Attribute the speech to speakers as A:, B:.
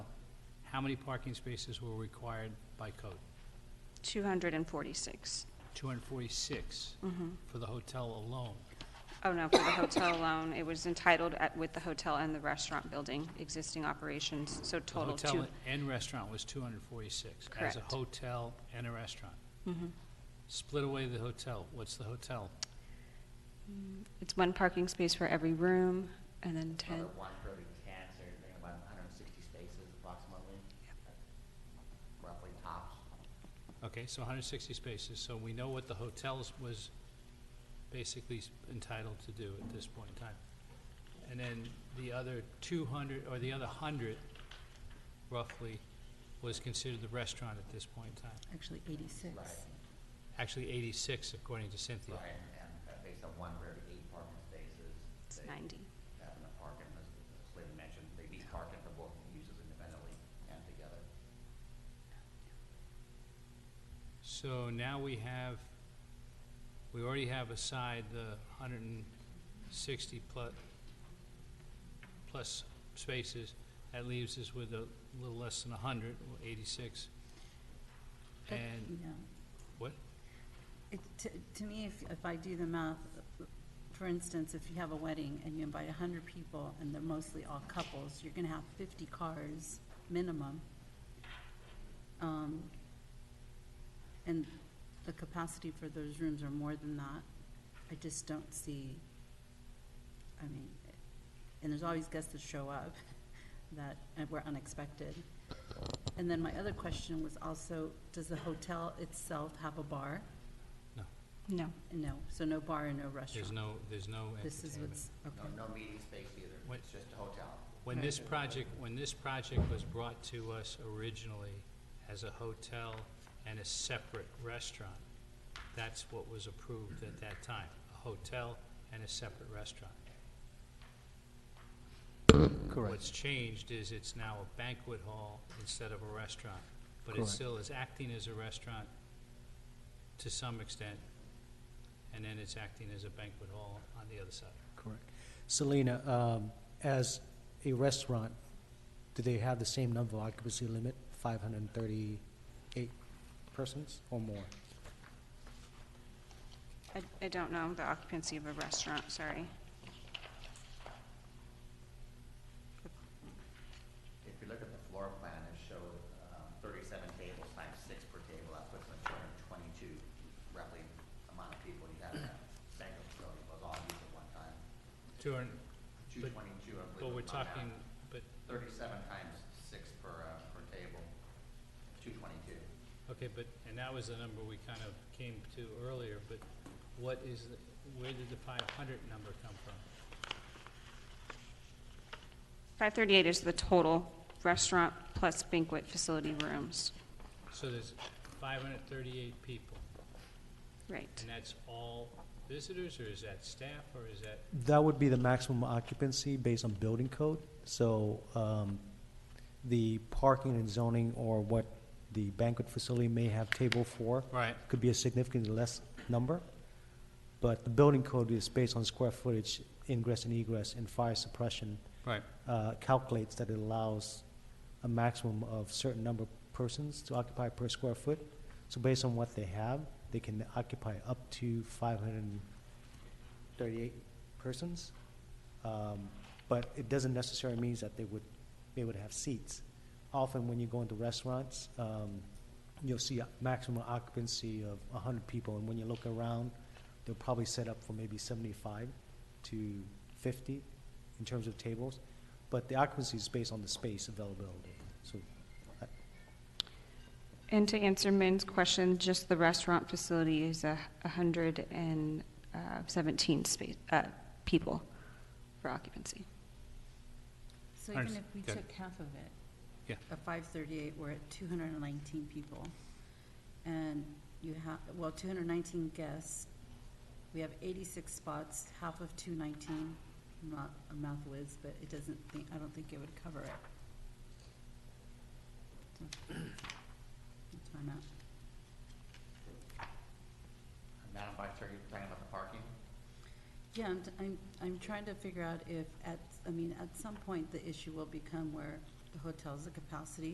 A: how many parking spaces were required by code?
B: 246.
A: 246 for the hotel alone.
B: Oh, no, for the hotel alone, it was entitled at- with the hotel and the restaurant building, existing operations, so
A: The
B: total
A: hotel
B: two.
A: and restaurant was 246. As
B: Correct.
A: a hotel and a restaurant. Split away the hotel. What's the hotel?
B: It's one parking space for every room, and then 10,
C: Another one for every ten, so you're getting about hundred and sixty spaces approximately. Roughly tops.
A: Okay, so 160 spaces, so we know what the hotels was basically s- entitled to do at this point in time. And then the other 200, or the other 100 roughly, was considered the restaurant at this point in time.
D: Actually, 86.
C: Right.
A: Actually 86 according to Cynthia.
C: Right, and, and uh, based on one for every eight parking spaces.
B: it's
C: they
B: 90.
C: Have enough parking, as as Lynn mentioned, they need parking for both uses independently and together.
A: So now we have, we already have aside the 160 plus, plus spaces. That leaves us with a little less than 100, or 86.
D: But,
A: And
D: yeah.
A: what?
D: It, to, to me, if, if I do the math, for instance, if you have a wedding and you invite hundred people and they're mostly all couples, you're gonna have fifty cars minimum. Um, and the capacity for those rooms are more than that. I just don't see, I mean, and there's always guests that show up that were unexpected. And then my other question was also, does the hotel itself have a bar?
B: No,
D: No, so no bar and no restaurant?
A: There's no, there's no
D: This is
A: entertainment.
D: what's,
C: No,
D: okay.
C: no meeting space either,
A: What-
C: it's just a hotel.
A: When this project, when this project was brought to us originally as a hotel and a separate restaurant, that's what was approved at that time, a hotel and a separate restaurant. What's changed is it's now a banquet hall instead of a restaurant, but it
E: Correct.
A: still is acting as a restaurant to some extent, and then it's acting as a banquet hall on the other side.
E: Correct. Selena, um, as a restaurant, do they have the same number of occupancy limit, 538 persons or more?
B: I, I don't know the occupancy of a restaurant, sorry.
C: If you look at the floor plan, it showed um, thirty-seven tables times six per table, that puts them at two hundred and twenty-two, roughly amount of people you have in that banquet facility, was all used at one time.
A: Two hundred-
C: Two
A: But-
C: twenty-two, I
A: But
C: believe.
A: we're
C: was my math.
A: talking, but,
C: Thirty-seven times six per, uh, per table, two twenty-two.
A: okay, but, and that was the number we kind of came to earlier, but what is, the where did the five hundred number come from?
B: 538 is the total restaurant plus banquet facility rooms,
A: So there's five hundred thirty-eight people,
B: right.
A: and that's all visitors, or is that staff, or is that,
E: That would be the maximum occupancy based on building code. So um, the parking and zoning or what the banquet facility may have table for
A: right,
E: could be a significantly less number. But the building code is based on square footage, ingress and egress, and fire suppression.
A: right.
E: uh, calculates that it allows a maximum of certain number of persons to occupy per square foot. So based on what they have, they can occupy up to 538 persons. Um, But it doesn't necessarily mean that they would, they would have seats. Often when you go into restaurants, um, you'll see a maximum occupancy of 100 people. And when you look around, they'll probably set up for maybe 75 to 50 in terms of tables. But the occupancy is based on the space availability. So I-
B: And to answer Min's question, just the restaurant facility is a 117 space, uh, people for occupancy.
D: So even
A: Understood.
D: if we
A: Good.
D: took half of it.
A: Yeah.
D: At five thirty-eight, we're at two hundred and nineteen people. And you have, well, two hundred and nineteen guests. We have eighty-six spots, half of two nineteen. I'm not a math whiz, but it doesn't think, I don't think it would cover it. So, That's my math.
C: Madam Vice Chair, you're talking about the parking?
D: Yeah, I'm, I'm, I'm trying to figure out if at, I mean, at some point, the issue will become where the hotel's the capacity